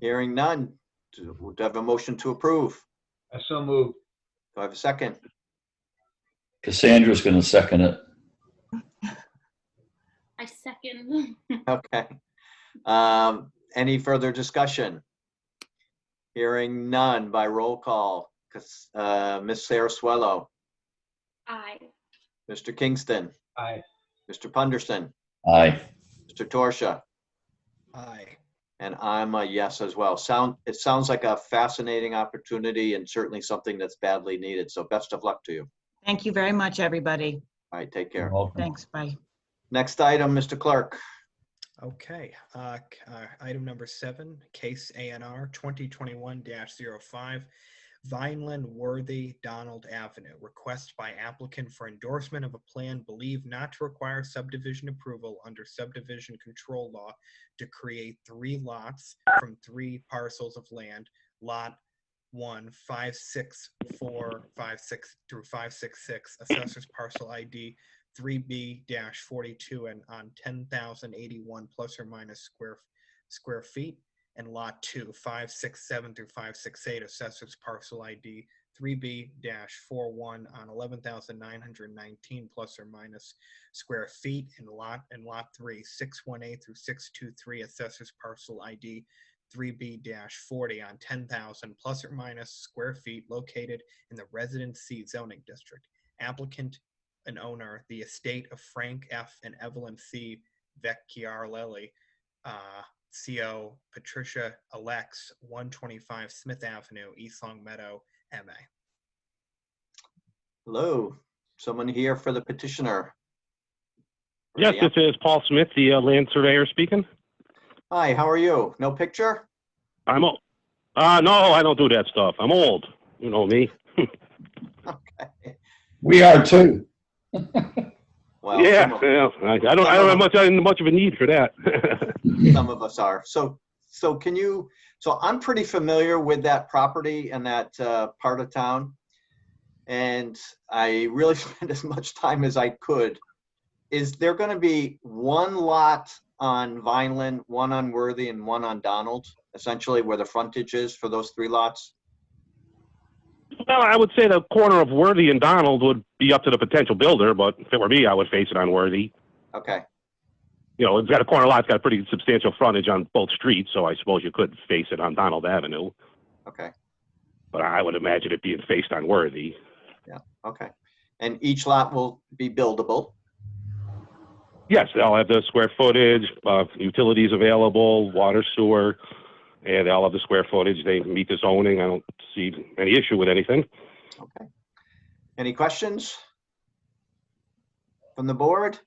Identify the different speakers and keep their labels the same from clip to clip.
Speaker 1: Hearing none. Do do I have a motion to approve?
Speaker 2: I so moved.
Speaker 1: Do I have a second?
Speaker 3: Cassandra's gonna second it.
Speaker 4: I second.
Speaker 1: Okay. Um, Any further discussion? Hearing none by roll call. Cas- uh, Ms. Saraswello,
Speaker 4: I.
Speaker 1: Mr. Kingston,
Speaker 2: Aye.
Speaker 1: Mr. Punderson,
Speaker 3: Aye.
Speaker 1: Mr. Torsia,
Speaker 5: Aye.
Speaker 1: and I'm a yes as well. Sound, it sounds like a fascinating opportunity and certainly something that's badly needed. So best of luck to you.
Speaker 6: Thank you very much, everybody.
Speaker 1: All right, take
Speaker 3: You're
Speaker 1: care.
Speaker 3: welcome.
Speaker 6: Thanks, bye.
Speaker 1: Next item, Mr. Clerk.
Speaker 5: Okay, uh, c- uh, item number seven, case ANR 2021-05, Vineland Worthy Donald Avenue. Request by applicant for endorsement of a plan believed not to require subdivision approval under subdivision control law to create three lots from three parcels of land, Lot 1, 564, 56 through 566, Assessor's Parcel ID 3B-42 and on 10,081 plus or minus square, square feet. And lot two, 567 through 568, assessors parcel ID 3B-41 on 11,919 plus or minus square feet. And lot, and lot three, 618 through 623, assessors parcel ID 3B-40 on 10,000 plus or minus square feet located in the residency zoning district. Applicant and owner, the estate of Frank F. and Evelyn C. Vecchiarelli, uh, CO Patricia Alex, 125 Smith Avenue, East Long Meadow, MA.
Speaker 1: Hello, someone here for the petitioner? Or
Speaker 7: Yes,
Speaker 1: the
Speaker 7: this is Paul Smith, the uh, land surveyor speaking.
Speaker 1: Hi, how are you? No picture?
Speaker 7: I'm old. Uh, no, I don't do that stuff. I'm old. You know me.
Speaker 3: We are too.
Speaker 1: Well,
Speaker 7: yeah,
Speaker 1: some of-
Speaker 7: yeah. I, I don't. I don't have much. I don't have much of a need for that.
Speaker 1: some of us are. So, so can you, so I'm pretty familiar with that property and that uh, part of town. And I really spent as much time as I could. Is there going to be one lot on Vineland, one on Worthy and one on Donald, essentially where the frontage is for those three lots?
Speaker 7: well, I would say the corner of Worthy and Donald would be up to the potential builder, but if it were me, I would face it on Worthy.
Speaker 1: Okay,
Speaker 7: You know, it's got a corner lot. It's got a pretty substantial frontage on both streets, so I suppose you could face it on Donald Avenue.
Speaker 1: okay,
Speaker 7: But I would imagine it being faced on Worthy.
Speaker 1: okay. And each lot will be buildable?
Speaker 7: Yes, they'll have the square footage, uh, utilities available, water, sewer, and they'll have the square footage. They meet the zoning. I don't see any issue with anything.
Speaker 1: Okay. Any questions? From the board?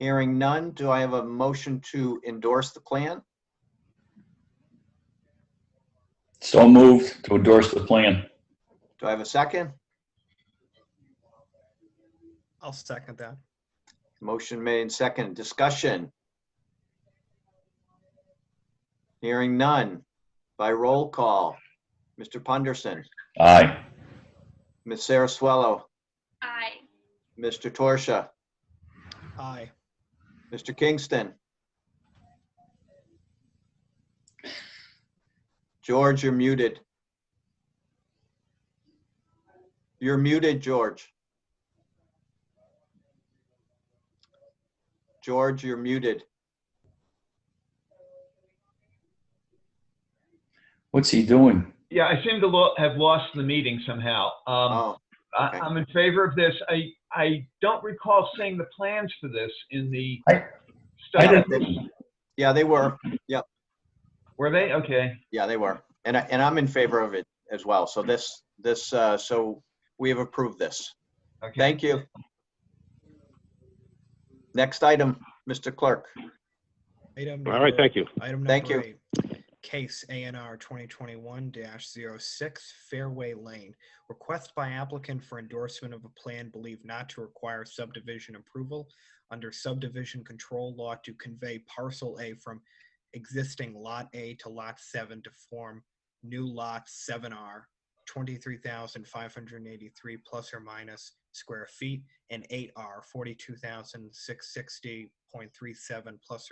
Speaker 1: Hearing none, do I have a motion to endorse the plan?
Speaker 3: So moved to endorse the plan.
Speaker 1: Do I have a second?
Speaker 5: I'll second that.
Speaker 1: Motion made and second, discussion? Hearing none, by roll call. Mr. Punderson,
Speaker 3: Aye.
Speaker 1: Ms. Saraswello,
Speaker 4: I.
Speaker 1: Mr. Torsia,
Speaker 5: Aye.
Speaker 1: Mr. Kingston. George, you're muted. You're muted, George. George, you're muted.
Speaker 3: What's he doing?
Speaker 2: Yeah, I seem to lo- have lost the meeting somehow.
Speaker 1: Oh,
Speaker 2: Um, I-
Speaker 1: okay.
Speaker 2: I'm in favor of this. I, I don't recall seeing the plans for this in the
Speaker 3: I- I
Speaker 2: study.
Speaker 3: didn't,
Speaker 1: yeah, they were.
Speaker 2: Were they? Okay.
Speaker 1: Yeah, they were. And I, and I'm in favor of it as well. So this, this, uh, so we have approved this.
Speaker 2: Okay.
Speaker 1: Thank you. Next item, Mr. Clerk.
Speaker 5: Item
Speaker 7: All right,
Speaker 5: number-
Speaker 7: thank you.
Speaker 5: Item
Speaker 1: Thank
Speaker 5: number eight, case ANR 2021-06 Fairway Lane. Request by applicant for endorsement of a plan believed not to require subdivision approval under subdivision control law to convey parcel A from existing lot A to lot 7 to form new lot 7R, 23,583 plus or minus square feet, and 8R, 42,660.37 plus